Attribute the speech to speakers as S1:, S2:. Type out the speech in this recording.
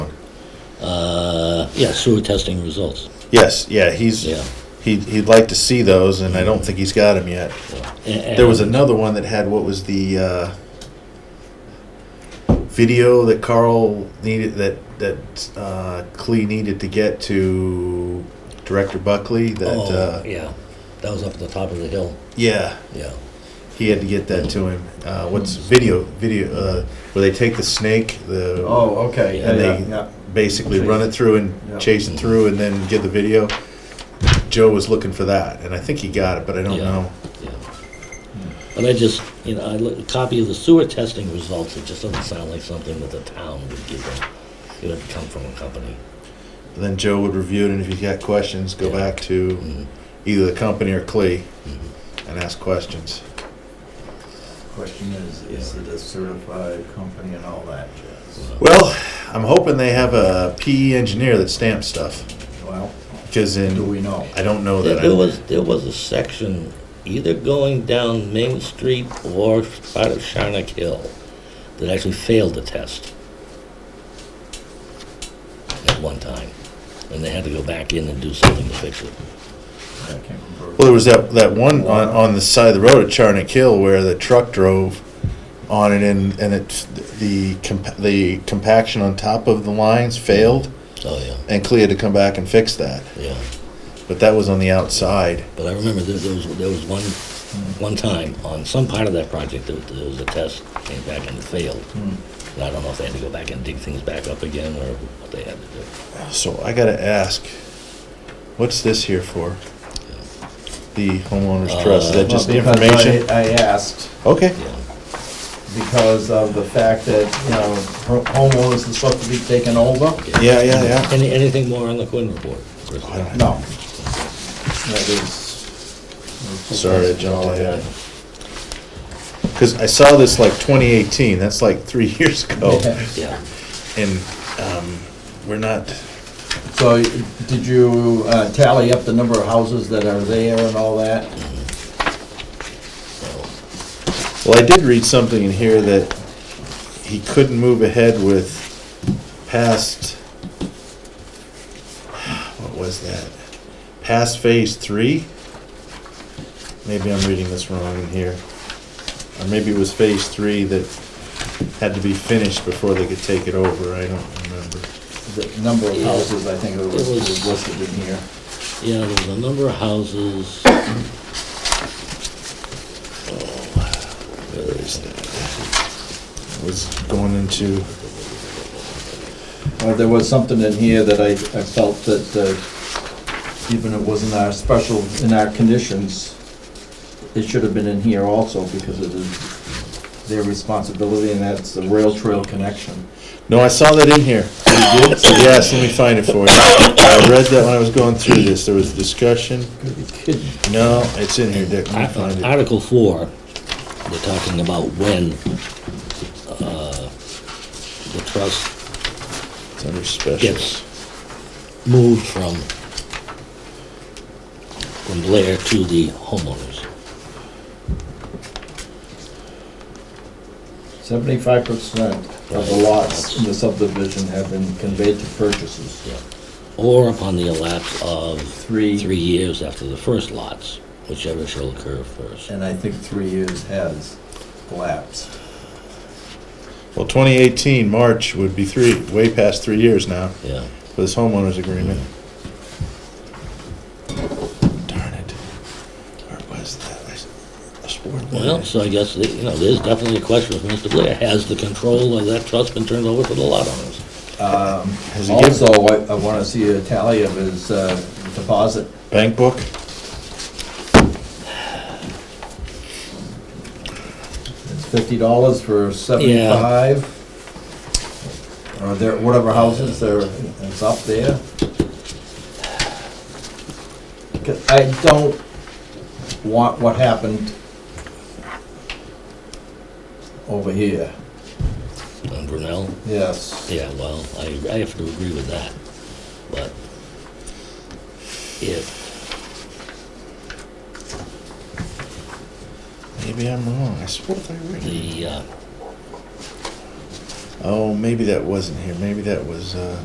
S1: Uh, Yeah, sewer testing results.
S2: Yes, yeah, he's,
S1: Yeah.
S2: he, he'd like to see those, and I don't think he's got them yet. There was another one that had, what was the, uh, video that Carl needed, that, that, uh, Clee needed to get to Director Buckley, that,
S1: Oh,
S2: uh,
S1: yeah, that was up at the top of the hill,
S2: yeah,
S1: yeah.
S2: he had to get that to him. Uh, what's video, video, uh, where they take the snake, the.
S3: Oh, okay,
S1: Yeah.
S3: yeah,
S2: And
S3: yeah,
S2: they
S3: yeah.
S2: basically run it through and
S3: Yeah.
S2: chase it through and then get the video. Joe was looking for that, and I think he got it, but I don't
S1: Yeah.
S2: know.
S1: Yeah. But I just, you know, I look, a copy of the sewer testing results, it just doesn't sound like something that the town would give them. It would come from a company.
S2: And then Joe would review it, and if he got questions, go
S1: Yeah.
S2: back
S3: Mm-hmm.
S2: to
S1: Mhm.
S2: either the company or Clee and ask questions.
S3: Question is, is it a certified company and all that jazz?
S2: Well, I'm hoping they have a PE engineer that stamps stuff
S3: Well,
S2: because
S3: do
S2: in
S3: we know?
S2: I don't know
S1: There
S2: that. I
S1: there
S2: don't-
S1: was, there was a section either going down Main Street or part of Sharnak Hill that actually failed the test at one time. And they had to go back in and do something to fix it.
S3: I can't remember.
S2: Well, there was that, that one on, on the side of the road at Charnock Hill where the truck drove on it and, and it, the, comp- the compaction on top of the lines failed
S1: Oh, yeah,
S2: and Clea had to come back and fix that.
S1: yeah.
S2: But that was on the outside.
S1: But I remember there, there was, there was one, one time on some part of that project, there, there was a test, came back and failed.
S3: Hmm.
S1: And I don't know if they had to go back and dig things back up again or what they had to do.
S2: So I gotta ask, what's this here for? The homeowners trust, is that just the
S3: Well, Uh, because
S2: information?
S3: I I asked
S2: Okay,
S1: Yeah,
S3: because of the fact that, you know, ho- homeowners are supposed to be taken over.
S2: yeah, yeah, yeah.
S1: Any, anything more on the Quinn report? Chris?
S2: I don't-
S3: No. That is.
S2: Sorry, I jumped
S3: Oh,
S2: ahead. Cause I saw this like twenty eighteen, that's like three years ago.
S3: Yeah.
S1: Yeah,
S2: And, um, we're not,
S3: So y- did you uh, tally up the number of houses that are there and all that?
S1: so,
S2: Well, I did read something in here that he couldn't move ahead with past, what was that? Past phase three? Maybe I'm reading this wrong in here. Or maybe it was phase three that had to be finished before they could take it over, I don't remember.
S3: The number of
S1: Yeah.
S3: houses, I think it was
S1: It was-
S3: was listed in here.
S1: yeah, there was a number of houses.
S2: Where is that? It was going into,
S3: Well, Uh, there was something in here that I, I felt that, uh, even it wasn't our special, in our conditions, it should have been in here also because it is their responsibility and that's the rail trail connection.
S2: no, I saw that in here. Yes, let me find it for you. I read that when I was going through this, there was discussion. No, it's in here, Dick. Let me find it.
S1: Uh, Article four, they're talking about when, uh, the trust
S2: It's under special.
S1: gets moved from, from Blair to the homeowners.
S3: Seventy-five percent of the lots in the subdivision have been conveyed to purchasers.
S1: Yeah. Or upon the elapse of three
S3: Three,
S1: years after the first lots, whichever shall occur first.
S3: and I think three years has elapsed.
S2: Well, 2018, March would be three, way past three years now
S1: Yeah,
S2: for this homeowners agreement. Darn it. Where was that? I s- I swore it
S1: well,
S2: was-
S1: so I guess, that, you know, there's definitely a question with Mr. Blair. Has the control of that trust been turned over to the lot owners?
S3: Um,
S2: Has he given
S3: Also, I, I wanna see a tally of his uh, deposit.
S2: bank book?
S3: It's fifty dollars for seventy-five? Or there, whatever houses there, it's up there. 'Cause I don't want what happened over here,
S1: On Brunel?
S3: yes.
S1: Yeah, well, I, I have to agree with that, but if,
S2: Maybe I'm wrong. I swore I read it.
S1: the, uh,
S2: Oh, maybe that wasn't here. Maybe that was, uh,